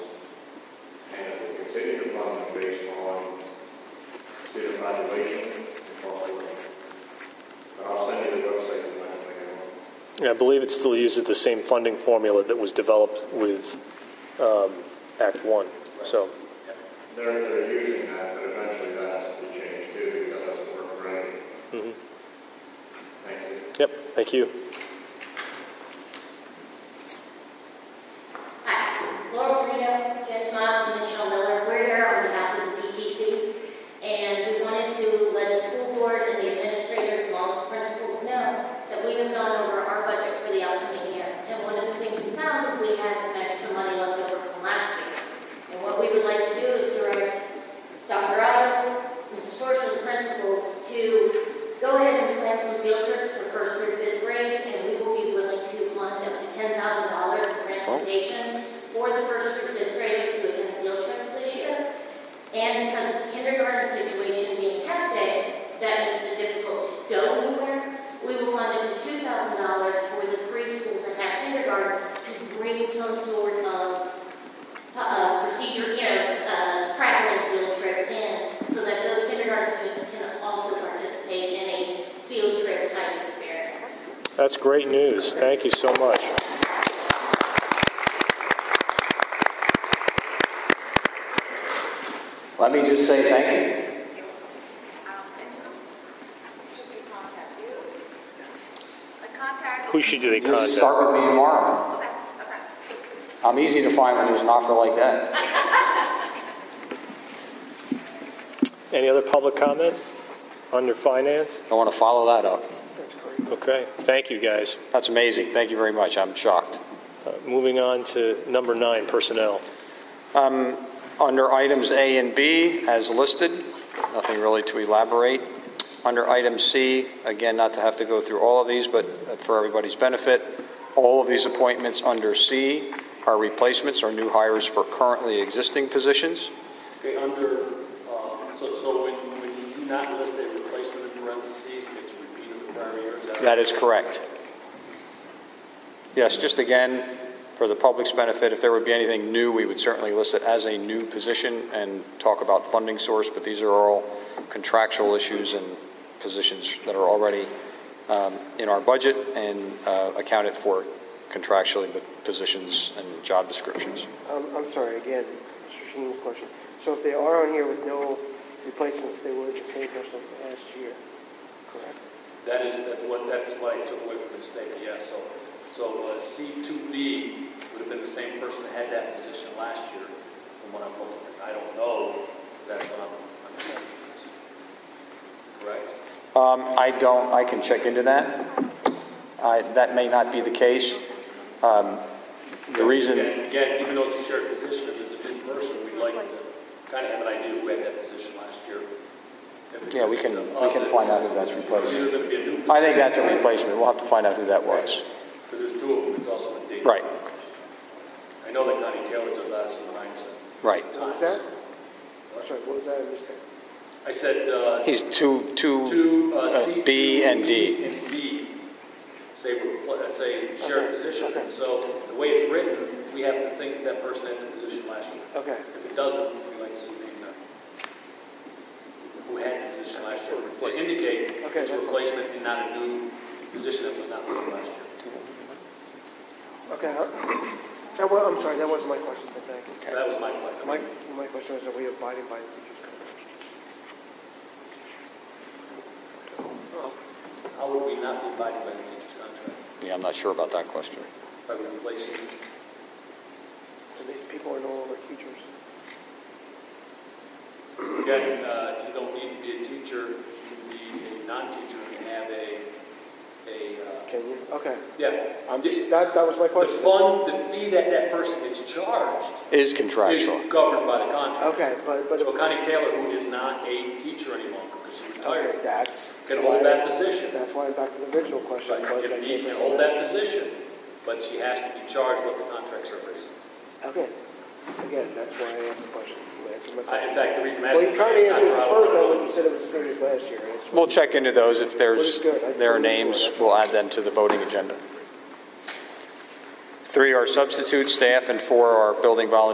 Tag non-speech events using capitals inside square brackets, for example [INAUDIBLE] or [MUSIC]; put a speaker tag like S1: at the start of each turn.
S1: evaluation before I leave. But I'll send you the website and let you know.
S2: And I believe it still uses the same funding formula that was developed with um, Act One. So,
S1: They're, they're using that, but eventually that has to be changed too, because that doesn't work right.
S2: mhm.
S1: Thank you.
S2: yep, thank you.
S3: Hi, Laura Marino, Jen Mott, and Michelle Miller. We're here on behalf of the BTC, and we wanted to let the school board and the administrators, and all the principals know that we have gone over our budget for the upcoming year. And one of the things we found is we had some extra money left over from last year. And what we would like to do is direct Dr. Otto, Mrs. Storch, and the principals to go ahead and plan some field trips for first through fifth grade, and we will be willing to fund up to ten thousand dollars in transportation for the first through fifth graders to attend field trips this year. And because of the kindergarten situation being half day, that makes it difficult to go anywhere. We will fund up to two thousand dollars for the three schools that have kindergarten to bring some sort of uh, procedure, you know, uh, traveling field trip in, so that those kindergarten students can also participate in a field trip type experience.
S2: That's great news. Thank you so much.
S4: Let me just say thank you.
S2: Who should they
S4: Just
S2: contact?
S4: start with me tomorrow. I'm easy to find when there's an offer like that.
S2: Any other public comment under finance?
S4: I want to follow that up.
S2: Okay, thank you, guys.
S4: That's amazing. Thank you very much. I'm shocked.
S2: Uh, Moving on to number nine, personnel.
S4: Um, Under items A and B, as listed, nothing really to elaborate. Under item C, again, not to have to go through all of these, but for everybody's benefit, all of these appointments under C are replacements or new hires for currently existing positions.
S5: Okay, under, uh, so, so when, when you do not list a replacement in parentheses, it's a repeat of the prior year, is that?
S4: That is correct. Yes, just again, for the public's benefit, if there would be anything new, we would certainly list it as a new position and talk about funding source, but these are all contractual issues and positions that are already um, in our budget and uh, accounted for contractually, but positions and job descriptions.
S6: Um, I'm sorry, again, Mr. Sheen's question. So if they are on here with no replacements, they were the same person last year, correct?
S5: That is, that's what, that's what I took away from the statement, yes, so, so uh, C two B would have been the same person that had that position last year, from what I'm looking at. I don't know, that's what I'm, I'm saying. Correct?
S4: Um, I don't, I can check into that. I- That may not be the case. Um, The reason.
S5: Again, again, even though it's a shared position, if it's a new person, we'd like to kind of have an idea who had that position last year. If it
S4: Yeah, we
S5: was
S4: can-
S5: to
S4: we
S5: us,
S4: can find
S5: it's-
S4: out who that's
S5: it's
S4: replacing.
S5: either gonna be a new
S4: I think that's
S5: position-
S4: a replacement. We'll have to find out who that was.
S5: Because there's two of them, it's also a date.
S4: Right.
S5: I know that Connie Taylor did that in nine cents.
S4: Right.
S6: What was that? I'm sorry, what was that? I missed that.
S5: I said, uh,
S4: He's two, two,
S5: two, uh,
S4: uh,
S5: C.
S4: B and D.
S5: B And D, say, we're pl- uh, say shared
S6: Okay,
S5: position.
S6: okay.
S5: So the way it's written, we have to think that person had the position last year.
S6: Okay,
S5: If it doesn't, we like to see the, uh, who had the position last year, to indicate
S6: Okay,
S5: it's a
S6: that's-
S5: replacement and not a new position that was not filled last year.
S6: okay. huh? [COUGHS] That wa- I'm sorry, that wasn't my question, but thank you.
S5: That was my question.
S6: My, my question was, are we abiding by the teacher's contract?
S5: How would we not be abiding by the teacher's contract?
S4: yeah, I'm not sure about that question.
S5: By replacing,
S6: So these people are no longer teachers?
S5: again, uh, you don't need to be a teacher, you can be a non-teacher and have a, a, uh,
S6: Can you? Okay.
S5: yeah.
S6: I'm,
S5: The
S6: that, that was my
S5: the
S6: question.
S5: fund, the fee that that person gets charged
S4: Is
S5: is
S4: contractual.
S5: governed by the contract.
S6: Okay, but, but.
S5: So Connie Taylor, who is not a teacher any longer because she
S6: Okay,
S5: retired,
S6: that's.
S5: can hold that position.
S6: That's why I'm back to the original question. was that
S5: Right, She
S6: same
S5: can
S6: person
S5: hold
S6: last
S5: that position, but she has to be charged with the contract service.
S6: Okay, again, that's why I asked the question. You answered my
S5: I- In
S6: question.
S5: fact, the reason I'm
S6: Well,
S5: asking.
S6: you kind of answered it first, I
S5: Colorado.
S6: would, you said it was the same as last year. That's
S4: We'll
S6: why-
S4: check into those. If there's,
S6: Well, it's good. I
S4: there are
S6: totally saw
S4: names,
S6: that.
S4: we'll add them to the voting agenda. Three are substitute staff and four are building volunteers